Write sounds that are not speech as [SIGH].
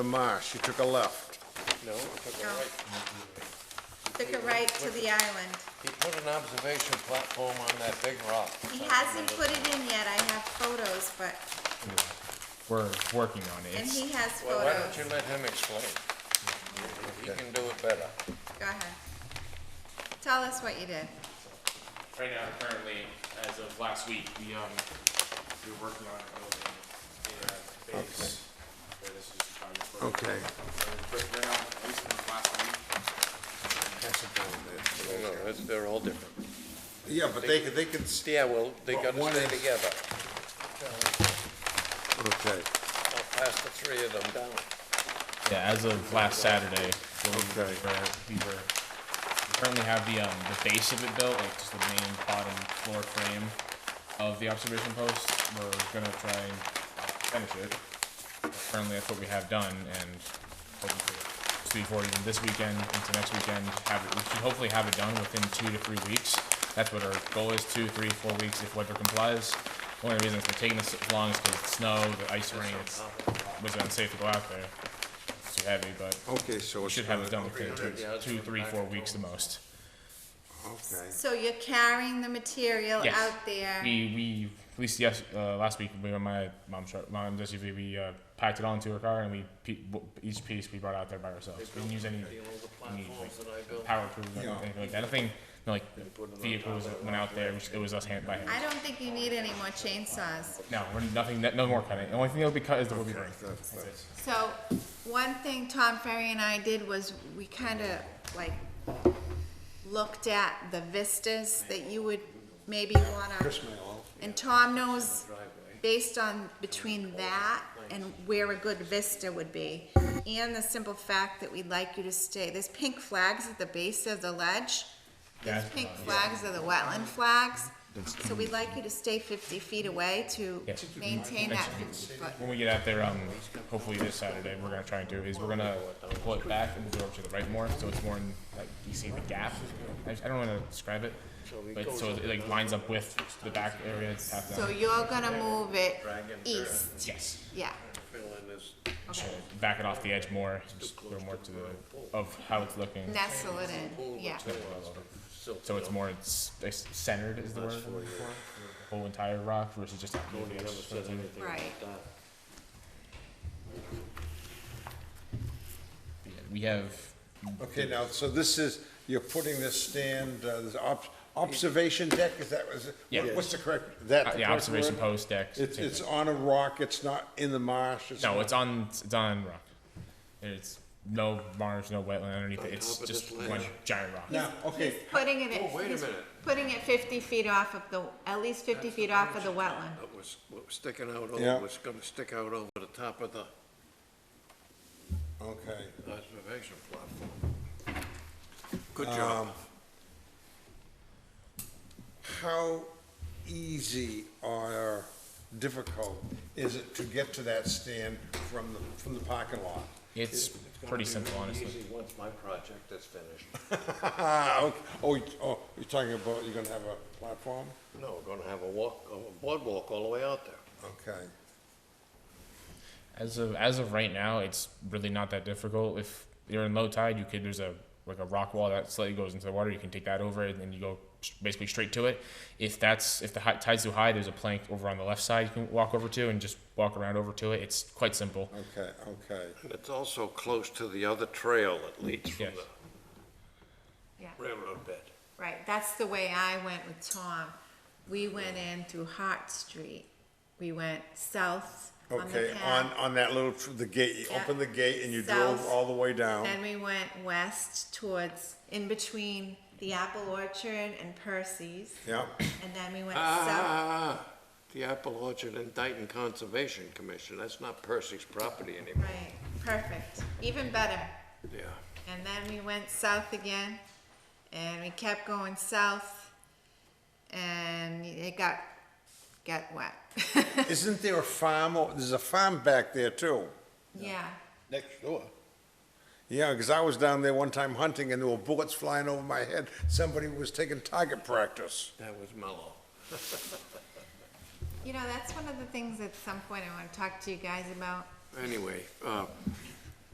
The marsh, you took a left. No, he took a No. right. Took it right to the island. He put an observation platform on that big rock. He hasn't put it in yet, I have photos, but, We're working on it. and It's- he has Well, why don't photos. you let him explain? He can do it better. Go ahead. Tell us what you did. right now, currently, as of last week, we, um, we were working on a building in a base where this was probably for. Okay. But right now, at least in the last week, No, no, it's- they're all different. Yeah, but they, they can, Yeah, well, they Well, gotta one stay is- together. okay, I'll pass the three of them down. Yeah, as of last Saturday, we were, Okay. we were, we currently have the, um, the base of it built, like just the main bottom floor frame of the observation post. We're gonna try and finish it. Currently, that's what we have done and hoping to speed forward even this weekend into next weekend, have it, we should hopefully have it done within two to three weeks. That's what our goal is, two, three, four weeks if weather complies. Only reason it's been taking this long is because it's snow, the ice rain, it's, uh, was unsafe to go out there it's too heavy, but okay, so we it's. should have it gonna- done within two, Yeah, it's two, gonna three, back four and weeks the most. Okay, So you're carrying the material Yes. out there? We, we, at least yes, uh, last week, we were in my mom's, truck- mom's SUV, we, uh, packed it all into her car and we, pe- w- each piece we brought out there by ourselves. We didn't use any, any, like, power tools or Yeah. anything like that. I think, no, like, vehicles that went out there, it was us hand by hand. I don't think you need any more chainsaws. No, we're nothing, no more cutting. The only thing that'll be cut is the wood grain. that's, that's, So, one thing Tom Ferry and I did was, we kinda like looked at the vistas that you would maybe wanna. And Tom knows, based on between that and where a good vista would be, and the simple fact that we'd like you to stay, there's pink flags at the base of the ledge. These Yeah. pink flags are the wetland flags, so we'd like you to stay fifty feet away to Yeah. maintain that fifty foot. When we get out there, um, hopefully this Saturday, we're gonna try and do is we're gonna pull it back and go over to the right more, so it's more in, like, you see the gap. I, I don't wanna describe it, but so it like lines up with the back area that's half So down. you're gonna move it east, Yes, yeah, So back it off the edge more, just go more to the, of how it's looking. nestle it in, yeah. So it's more, it's it's centered is the word, I'm looking for. The whole entire rock versus just. Right, uh, Yeah, We have okay, now, so this is, you're putting this stand, uh, this ob- observation deck, is that, was, Yeah. what's the correct, that? uh, the the correct observation word? post decks. It's, things it's like- on a rock, it's not in the marsh, it's. No, not- it's on it's on rock. It's no marsh, no wetland underneath it. It's just one giant rock. Now, okay, putting it, Oh, at- he's putting it fifty feet off of the, at least fifty feet off of the wetland. What was, what was sticking out Yeah. over, was gonna stick out over the top of the okay. observation platform. Um, Good job. How easy or difficult is it to get to that stand from the, from the parking lot? It's pretty simple, honestly. Easy once my project is finished. [LAUGHS] Oh, you- oh, you're talking about, you're gonna have a platform? No, we're gonna have a walk, a boardwalk all the way out there. Okay. As of as of right now, it's really not that difficult. If you're in low tide, you could there's a like a rock wall that slightly goes into the water. You can take that over and then you go s- basically straight to it. If that's if the high, tide's too high, there's a plank over on the left side you can walk over to and just walk around over to it. It's quite simple. Okay, okay. And it's also close to the other trail that leads from Yes. the Yeah. railroad bed. Right, that's the way I went with Tom. We went in through Hart Street. We went south on the Okay, on, path. on that little, tr- the gate, you Yeah. open the gate and you drove South. all the way down. Then we went west towards, in between the Apple Orchard and Percy's. Yeah, And then we went south. Ah, the Apple Orchard and Dayton Conservation Commission, that's not Percy's property anymore. Right, perfect, even better. Yeah, And then we went south again, and we kept going south, and it got, got wet. isn't there a farm, o- there's a farm back there too? [LAUGHS] Yeah, next door. Yeah, because I was down there one time hunting and there were bullets flying over my head. Somebody was taking target practice. That was Mellow. you know, that's one of the things at some point I wanna talk to you guys about. Anyway, uh,